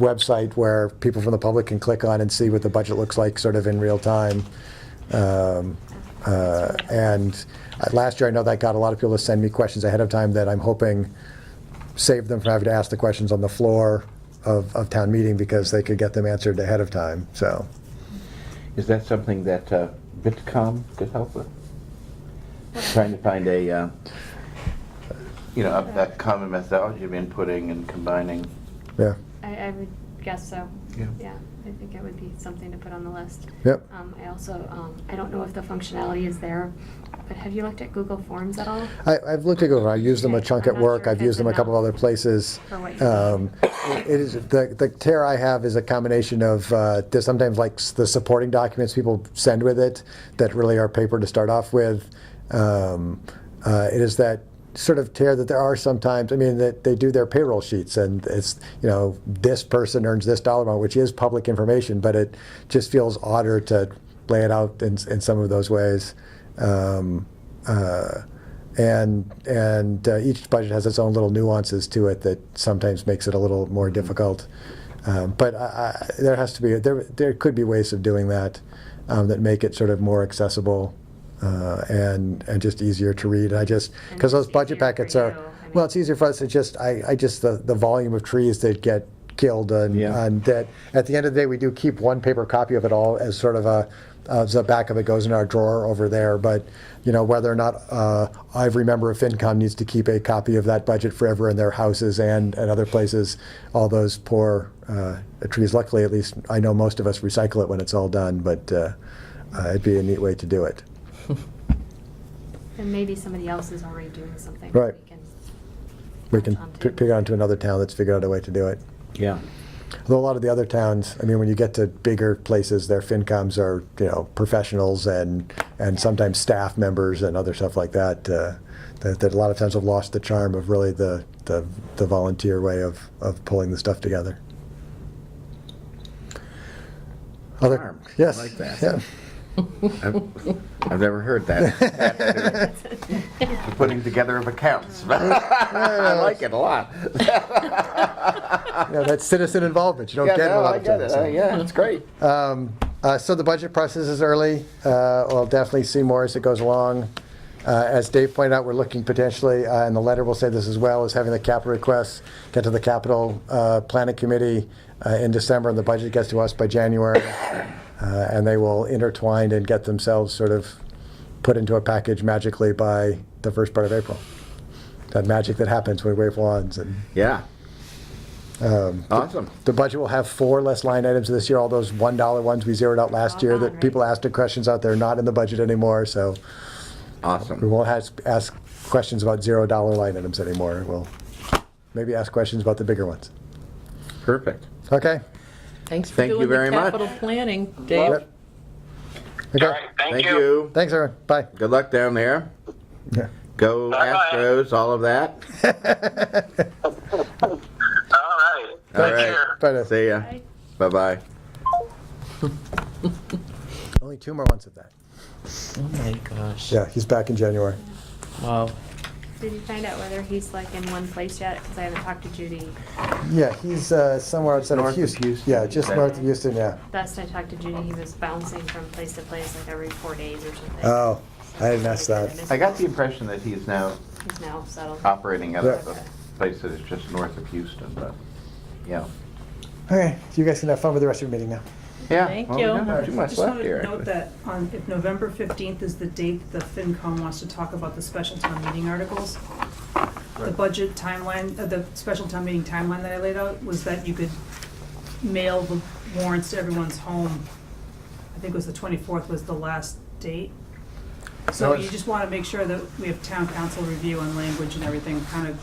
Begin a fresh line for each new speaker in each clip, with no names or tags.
website where people from the public can click on and see what the budget looks like sort of in real time. Um, uh, And uh, last year, I know that got a lot of people to send me questions ahead of time that I'm hoping saved them from having to ask the questions on the floor of, of town meeting because they could get them answered ahead of time, so.
Is that something that uh, VITCOM could help with? Trying to find a, uh, you know, a- a common methodology of inputting and combining.
Yeah,
I, I would guess so.
Yeah.
I think it would be something to put on the list.
Yep.
Um, I also, um, I don't know if the functionality is there, but have you looked at Google Forms at all?
I, I've looked at Google, I use them a
Okay,
chunk at
I'm not
work,
sure
I've
if
used
it's
them a couple
enough
other places.
for what you
Um, It it is, the, the tear I have is a combination of, uh, there's sometimes like s- the supporting documents people send with it that really are paper to start off with. Um, uh, It is that sort of tear that there are sometimes, I mean, that they do their payroll sheets and it's, you know, this person earns this dollar amount, which is public information, but it just feels odder to lay it out in, s- in some of those ways. Um, uh, and and uh, each budget has its own little nuances to it that sometimes makes it a little more difficult. Um, but I, I, there has to be there there could be ways of doing that um, that make it sort of more accessible uh, and and just easier to read. And I just
And
because those
it's
budget
easier for
packets are
you, I
well,
mean-
it's easier for us to just I, I just the, the volume of trees that get killed and,
Yeah.
and that at the end of the day we do keep one paper copy of it all as sort of a uh, the back of it goes in our drawer over there but you know whether or not uh, every member of fincom needs to keep a copy of that budget forever in their houses and and other places all those poor uh, trees luckily at least i know most of us recycle it when it's all done but uh, uh, it'd be a neat way to do it
And maybe somebody else is already doing something.
Right.
we can
we can
latch onto.
pick pick on to another town that's figured out a way to do it
Yeah.
Although a lot of the other towns, I mean, when you get to bigger places, their FinComs are, you know, professionals and, and sometimes staff members and other stuff like that, uh, that, that a lot of times have lost the charm of really the, the, the volunteer way of, of pulling the stuff together. Other-
Charm. I
Yes.
like that.
yeah.
I've I've never heard that. The Putting together of accounts. I like it a lot.
You know, that's citizen involvement. You don't
Yeah,
get it a
no,
lot
I
of
get
times.
it.
so.
Uh, Yeah, it's great.
Um, uh, So the budget process is early. Uh, We'll definitely see more as it goes along. Uh, As Dave pointed out, we're looking potentially, uh, and the letter will say this as well, is having the capital requests get to the capital uh, planning committee uh, in December, and the budget gets to us by January. Uh, And they will intertwine and get themselves sort of put into a package magically by the first part of April. That magic that happens when we wave wands and
Yeah.
Um,
Awesome.
the budget will have four less line items this year, all those $1 ones we zeroed out last year
All gone,
that people
right?
asked questions out there, not in the budget anymore, so we
Awesome.
won't has- ask questions about $0 line items anymore. We'll maybe ask questions about the bigger ones.
Perfect.
Okay?
Thanks for
Thank you
doing the
very much.
capital planning, Dave.
Yep.
Oh. All
Okay,
right, thank
Thank
you.
you.
thanks, everyone, bye.
Good luck down there.
Yeah.
Go
Bye-bye.
Astros, all of that.
All right.
All right.
Take care.
Bye now.
See ya.
Bye.
Bye-bye.
Only two more months of that.
Oh my gosh.
Yeah, he's back in January.
Wow.
Did you find out whether he's like in one place yet? Because I haven't talked to Judy.
Yeah, he's uh, somewhere outside
North
of
of
Houston.
Houston.
Yeah, just
Okay.
north of Houston, yeah.
Last I talked to Judy, he was bouncing from place to place like every four days or something.
Oh, I didn't ask that.
I got the Oh. impression that he's now
He's now settled.
operating out of
Yeah.
a place that is just north of Houston, but, yeah.
Okay, so you guys can have fun with the rest of your meeting now.
Yeah.
Thank
well, we
you.
don't have too
I
much
just want
left
to
here.
note that on, if November 15th is the date the FinCom wants to talk about the special town meeting articles, the budget timeline, uh, the special town meeting timeline that I laid out was that you could mail the warrants to everyone's home. I think it was the 24th was the last date.
No,
So
it's-
you just want to make sure that we have town council review on language and everything, kind of,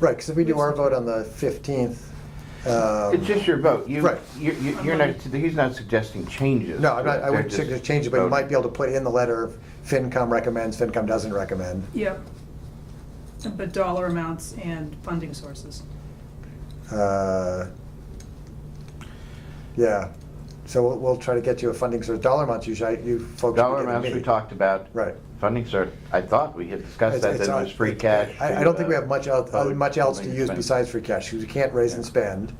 Right, because if we do our vote on the 15th. um,
It's just your vote. You,
Right.
you- you- you're not, he's not suggesting changes.
No, I'm not, I
They're
wouldn't
just
suggest change it, but you
voting.
might be able to put in the letter, FinCom recommends, FinCom doesn't recommend.
yep. But dollar amounts and funding sources.
Uh, Yeah, so we'll, we'll try to get you a funding source, dollar amounts usually, you folks.
Dollar
begin to
amounts we
meet.
talked about.
Right.
Funding cert, I thought we had discussed
It's-
that,
it's
that it
on-
was free
it-
cash.
I, I
to,
don't think we
uh,
have much else,
public
much else to
building
use
expense.
besides free cash, because we can't raise and spend.